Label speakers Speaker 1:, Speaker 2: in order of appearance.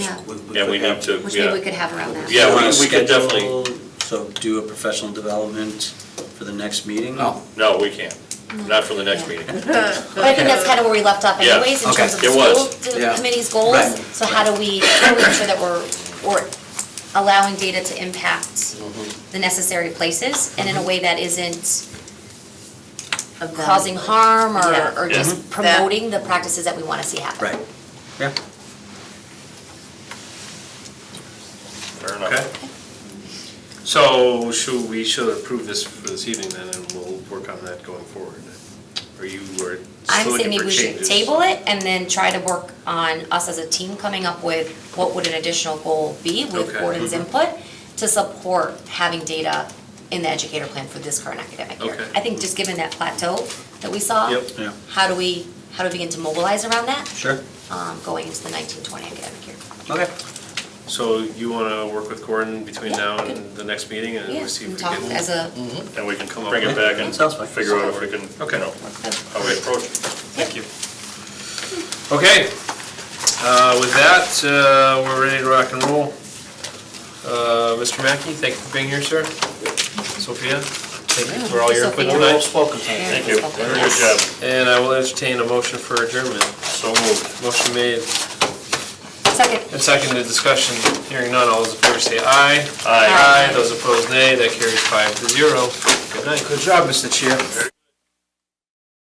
Speaker 1: Yeah.
Speaker 2: Yeah, we need to,
Speaker 1: Which maybe we
Speaker 2: yeah.
Speaker 1: could have around that.
Speaker 2: Yeah, we-
Speaker 3: Wanna
Speaker 2: we could definitely-
Speaker 3: schedule- So do a professional development for the next meeting?
Speaker 4: Oh,
Speaker 2: No, we can't. Not for the next meeting.
Speaker 1: But I think that's kind of where we left off
Speaker 2: Yeah.
Speaker 1: anyways, in
Speaker 4: Okay.
Speaker 1: terms of the
Speaker 2: It was.
Speaker 1: school
Speaker 4: Yeah.
Speaker 1: d- committee's goals.
Speaker 4: Right.
Speaker 1: So how do we, how do we ensure that we're, we're allowing data to impact
Speaker 2: Mm-hmm.
Speaker 1: the necessary places and in a way that isn't causing harm
Speaker 5: Yeah.
Speaker 1: or, or
Speaker 2: Yeah.
Speaker 1: just promoting the practices that we want to see happen?
Speaker 3: Right, yeah.
Speaker 2: Fair
Speaker 6: Okay.
Speaker 2: enough.
Speaker 6: So should, we should approve this for this evening then, and we'll work on that going forward? Or you were
Speaker 1: I'm
Speaker 6: still
Speaker 1: saying
Speaker 6: looking
Speaker 1: maybe
Speaker 6: for
Speaker 1: we should
Speaker 6: changes?
Speaker 1: table it and then try to work on us as a team coming up with what would an additional goal be with
Speaker 6: Okay. Mm-hmm.
Speaker 1: Gordon's input to support having data in the educator plan for this current academic year.
Speaker 6: Okay.
Speaker 1: I think just given that plateau that we saw.
Speaker 6: Yep.
Speaker 3: Yeah.
Speaker 1: How do we, how do we begin to mobilize around that,
Speaker 3: Sure,
Speaker 1: um, going into the nineteen twenty academic year?
Speaker 3: okay.
Speaker 6: So you want to work with Gordon between now and the next meeting, and
Speaker 1: Yeah,
Speaker 6: we'll see if
Speaker 1: and
Speaker 6: we
Speaker 1: talk
Speaker 6: can.
Speaker 1: as a,
Speaker 6: Mm.
Speaker 2: And we can
Speaker 6: Come up
Speaker 2: bring it
Speaker 6: with-
Speaker 2: back and
Speaker 3: Sounds fine.
Speaker 2: figure out if we can, you
Speaker 6: Okay.
Speaker 2: know, how we approach it.
Speaker 6: Thank you. Okay, uh, with that, uh, we're ready to rock and roll. Uh, Mr. Mackey, thank you for being here, sir. Sophia, thank you for all your input
Speaker 1: Sophia.
Speaker 6: tonight.
Speaker 2: Thank you. Very good job.
Speaker 6: And I will entertain a motion for adjournment.
Speaker 2: So moved.
Speaker 6: Motion made
Speaker 1: second.
Speaker 6: and seconded, discussion, hearing none, all those in favor say aye.
Speaker 2: Aye.
Speaker 6: Those opposed nay, that carries five to zero. Good night.
Speaker 4: good job, Mr. Chair.